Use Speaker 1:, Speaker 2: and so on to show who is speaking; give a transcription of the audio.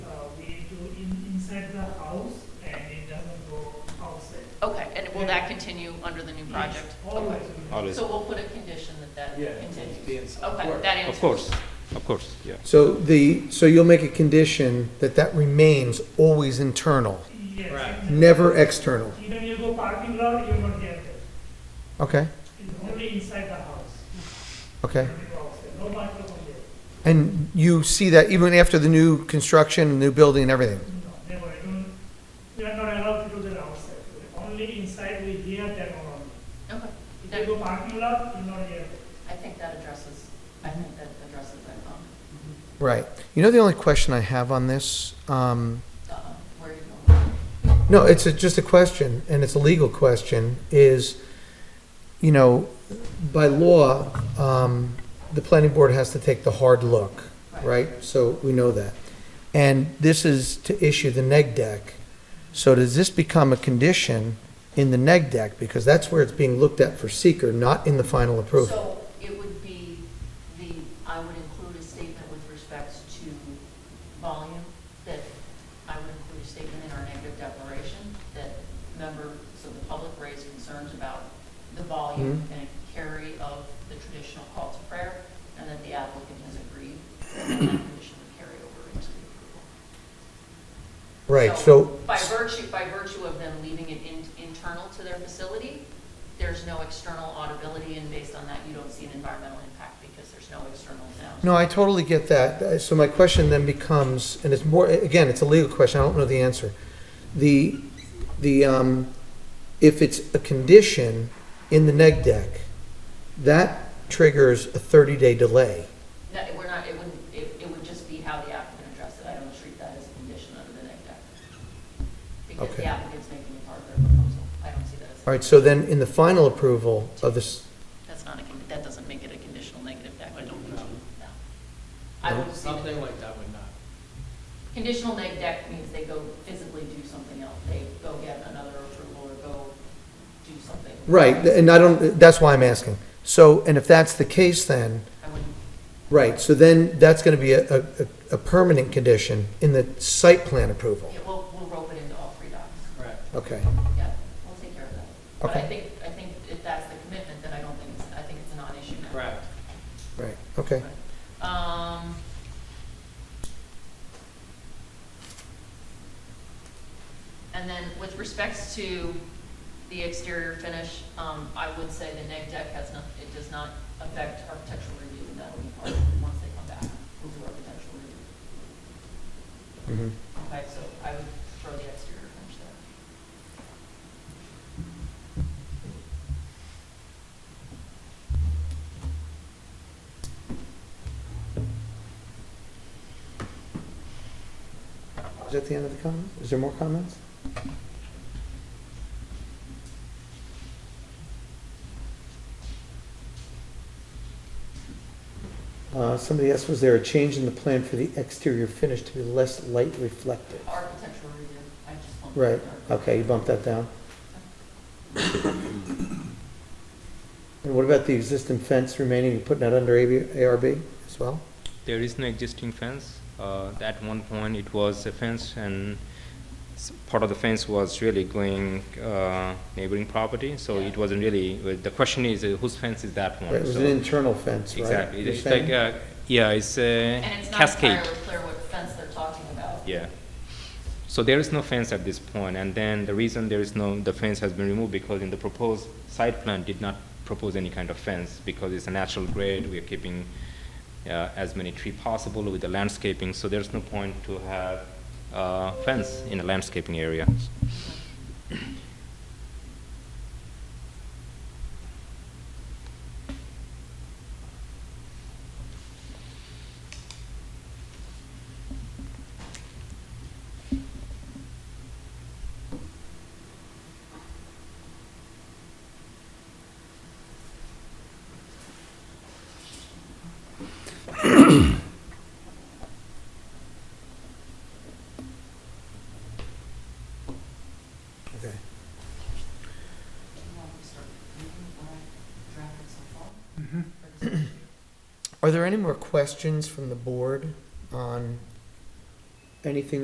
Speaker 1: Uh,
Speaker 2: will that continue under the new project?
Speaker 3: Always.
Speaker 4: Always.
Speaker 2: So we'll put a condition that
Speaker 3: Yeah.
Speaker 2: that continues.
Speaker 3: Yes, of
Speaker 2: Okay,
Speaker 3: course.
Speaker 2: that
Speaker 4: Of
Speaker 2: answers.
Speaker 4: course, of course, yeah.
Speaker 5: So the, so you'll make a condition that that remains always internal,
Speaker 1: Yes.
Speaker 3: Right.
Speaker 5: never external?
Speaker 1: Even you go parking lot, you won't get it.
Speaker 5: Okay,
Speaker 1: It's only inside the house.
Speaker 5: okay.
Speaker 1: No microphone there.
Speaker 5: And you see that even after the new construction, new building and everything?
Speaker 1: No, never. I don't, we are not allowed to do that outside. Only inside we hear that only.
Speaker 2: Okay,
Speaker 1: If
Speaker 2: that,
Speaker 1: you go parking lot, you not hear.
Speaker 2: I think that addresses, I
Speaker 3: Mm-hmm.
Speaker 2: think that addresses that, um,
Speaker 5: Right. You know, the only question I have on this, um,
Speaker 2: the, um, where you're going.
Speaker 5: no, it's a- just a question, and it's a legal question, is, you know, by law, um, the planning board has to take the hard look, right? So we know that. And this is to issue the neg deck. So does this become a condition in the neg deck? Because that's where it's being looked at for seeker, not in the final approval.
Speaker 2: So it would be the, I would include a statement with respect to volume, that I would include a statement in our negative declaration that members of the public raised concerns about the volume and carry of the traditional call to prayer, and that the applicant has agreed, and that condition would carry over into the approval.
Speaker 5: Right, so,
Speaker 2: By virtue, by virtue of them leaving it in- internal to their facility, there's no external audibility, and based on that, you don't see an environmental impact because there's no external sound.
Speaker 5: no, I totally get that. Uh, So my question then becomes, and it's more, again, it's a legal question, I don't know the answer. The, the, um, if it's a condition in the neg deck, that triggers a thirty-day delay.
Speaker 2: No, we're not, it wouldn't, it, it would just be how the applicant addressed it. I don't treat that as a condition under the neg deck. Because the
Speaker 5: Okay.
Speaker 2: applicant's making it part of their proposal. I don't see that
Speaker 5: All
Speaker 2: as,
Speaker 5: right, so then in the final approval of this,
Speaker 2: that's not a, con- that doesn't make it a conditional negative deck. I don't think, so, no. I would see that.
Speaker 3: Something like that would not.
Speaker 2: Conditional neg deck means they go physically do something else. They go get another approval or go do something.
Speaker 5: right, and I don't, that's why I'm asking. So, and if that's the case then,
Speaker 2: I wouldn't,
Speaker 5: right, so then that's gonna be a, a, a permanent condition in the site plan approval.
Speaker 2: yeah, we'll, we'll rope it into all three docs.
Speaker 3: Correct.
Speaker 5: Okay,
Speaker 2: Yeah, we'll take care of that. But I
Speaker 5: Okay.
Speaker 2: think, I think if that's the commitment, then I don't think, it's I think it's a non-issue now.
Speaker 3: Correct.
Speaker 5: right, okay.
Speaker 2: Um. And then with respects to the exterior finish, um, I would say the neg deck has not, it does not affect architectural review, and that'll be part of, it once they come back, we'll do architectural review.
Speaker 5: Mhm.
Speaker 2: Okay, so I would throw the exterior finish there.
Speaker 5: Is that the end of the comment? Is there more comments? Uh, somebody asked, was there a change in the plan for the exterior finish to be less light reflective?
Speaker 2: Architectural review, I just want.
Speaker 5: Right, okay, you bumped that down. And what about the existing fence remaining, you putting that under AB ARB as well?
Speaker 6: There is no existing fence. Uh, At one point, it was a fence, and s- part of the fence was really going uh, neighboring property, so it wasn't really, well, the question is, uh, whose fence is that one?
Speaker 5: Right, It was
Speaker 6: So-
Speaker 5: an internal fence, right?
Speaker 6: Exactly.
Speaker 5: You're
Speaker 6: It's like,
Speaker 5: saying?
Speaker 6: uh, yeah, it's a
Speaker 2: And it's not
Speaker 6: cascade.
Speaker 2: entirely clear what fence they're talking about.
Speaker 6: Yeah. So there is no fence at this point, and then the reason there is no, the fence has been removed because in the proposed site plan did not propose any kind of fence because it's a natural grade, we are keeping uh, as many tree possible with the landscaping, so there's no point to have uh, fence in a landscaping area.
Speaker 5: Okay.
Speaker 2: Do you want me to start reading what I drafted so far? Or does-
Speaker 5: Are there any more questions from the board on anything